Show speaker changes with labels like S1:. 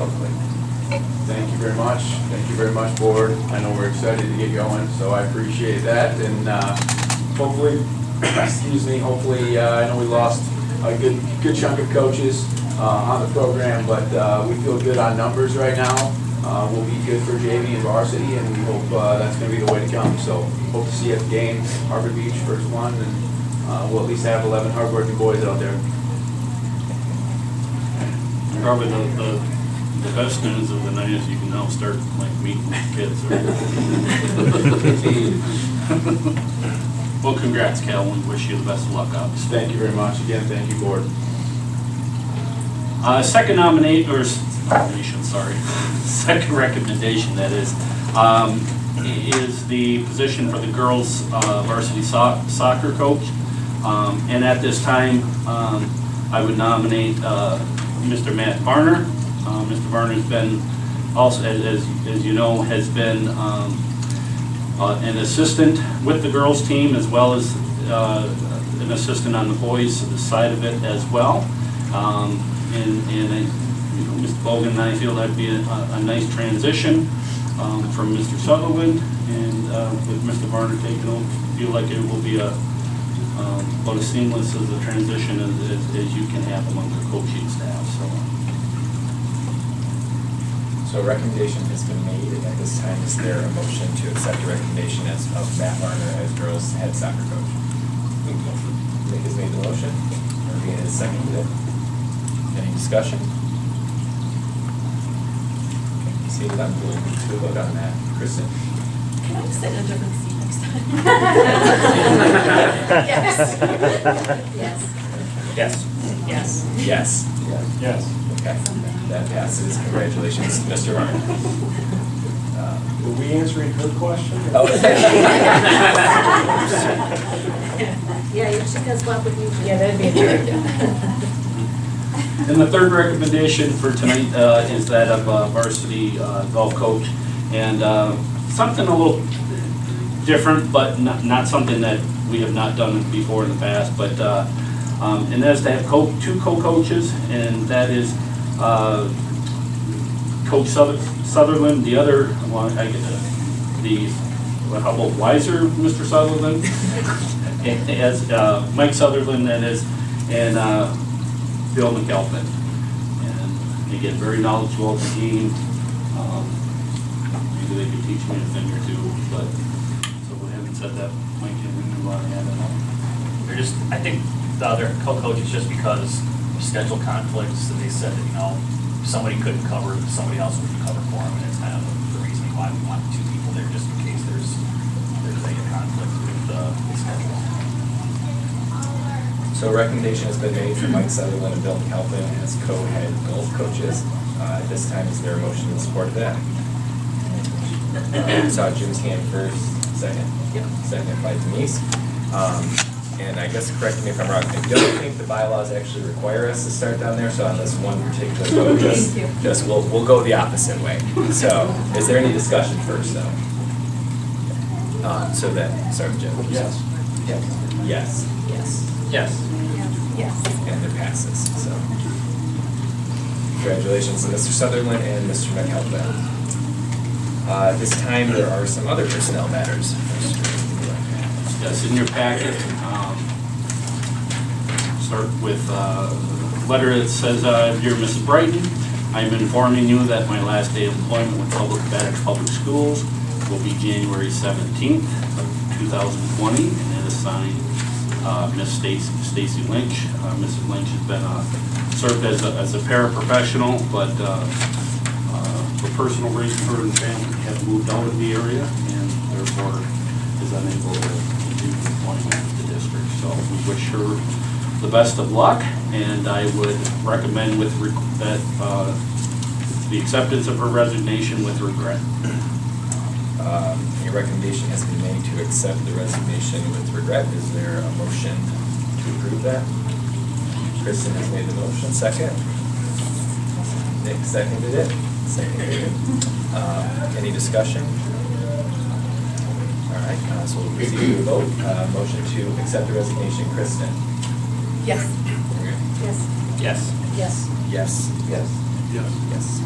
S1: hopefully.
S2: Thank you very much. Thank you very much, board. I know we're excited to get going, so I appreciate that. And uh, hopefully, excuse me, hopefully, uh, I know we lost a good, good chunk of coaches uh, on the program, but uh, we feel good on numbers right now. Uh, We'll be good for JV and varsity, and we hope uh, that's going to be the way to come. So hope to see you at the game, Harbor Beach, first one, and uh, we'll at least have 11 hardworking boys out there.
S3: Probably the, the, the best news of the night is you can now start like meeting the kids. right? Well, congrats, Cal, and wish you the best of luck, obviously.
S2: Thank you very much. Again, thank you, board.
S3: Uh, second nominate, or, s- nomination, sorry, second recommendation, that is, um, is the position for the girls uh, varsity soc- soccer coach. Um, and at this time, um, I would nominate, uh, Mr. Matt Varner. Uh, Mr. Varner's been, also, as, as- as you know, has been, um, uh, an assistant with the girls' team as well as uh, an assistant on the boys' side of it as well. Um, And, and, I- you know, Mr. Bogan and I feel that'd be a, a nice transition um, from Mr. Sutherland and uh, with Mr. Varner taking over, feel like it will be a, um, about as seamless as a transition as, as- as you can have among the coaching staff, so.
S1: So a recommendation has been made, and at this time, is there a motion to accept the recommendation as of Matt Varner as girls' head soccer coach? Nick has made the motion, Maria has seconded it. Any discussion? Okay, Seeing none, we'll move to a vote on that. Kristen?
S4: Can I sit in a different seat next time?
S5: Yes.
S4: Yes.
S1: Yes.
S4: Yes.
S1: Yes. Yes. Okay, that passes, congratulations, Mr. Varner. Uh,
S6: Were we answering her question?
S1: Oh.
S5: Yeah, you should guys walk with you.
S4: Yeah, that'd be
S3: And the third recommendation for tonight uh, is that of uh, varsity uh, golf coach. And uh, something a little different, but not, not something that we have not done before in the past, but, uh, um, and that is to have co, two co-coaches, and that is uh, Coach Suther- Sutherland, the other, well, I get the, the, what, how about wiser Mr. Sutherland? And As uh, Mike Sutherland, that is, and uh, Bill McAlpin. And they get very knowledgeable of the game. Um, Maybe they could teach me a thing or two, but, so we haven't said that, Mike, can we move on ahead and uh, all?
S7: They're just, I think the other co-coaches, just because of schedule conflicts, and they said that, you know, somebody couldn't cover, somebody else would cover for them, and it's kind of the reason why we want two people there, just in case there's, there's like a conflict with uh, the schedule.
S1: So a recommendation has been made for Mike Sutherland and Bill Calvin as co-head golf coaches. Uh, At this time, is there a motion in support of that? Uh, I Saw Jim's hand first, second. Yep. Second by Denise. Um, And I guess, correct me if I'm wrong, I don't think the bylaws actually require us to start down there, so on this one particular vote, just,
S4: Thank you.
S1: just we'll, we'll go the opposite way. So, is there any discussion first, though? Um, So then, sorry, Jim.
S3: Yes.
S1: Yes. Yes.
S3: Yes.
S4: Yes.
S1: And it passes, so. Congratulations to Mr. Sutherland and Mr. McAlpin. Uh, this time, there are some other personnel matters.
S3: Yes, in your packet, um, start with uh, a letter that says, uh, Dear Mrs. Brighton, I am informing you that my last day of employment with Public Baddock Public Schools will be January 17th of 2020, and it is signed uh, Miss Stacy Stacy Lynch. Uh, Mrs. Lynch has been, uh, served as a as a paraprofessional, but uh, uh, for personal reasons, her and family have moved out of the area and therefore is unable to continue employment with the district. So we wish her the best of luck and I would recommend with, reg- that, uh, the acceptance of her resignation with regret.
S1: Um, a recommendation has been made to accept the resignation with regret. Is there a motion to approve that? Kristen has made the motion, second. Nick seconded it, seconded it. Um, any discussion? All right, uh, so we'll proceed to a vote. Uh, motion to accept the resignation, Kristen.
S4: Yes.
S5: Yes.
S3: Yes.
S5: Yes.
S1: Yes. Yes.
S3: Yes.
S1: Yes.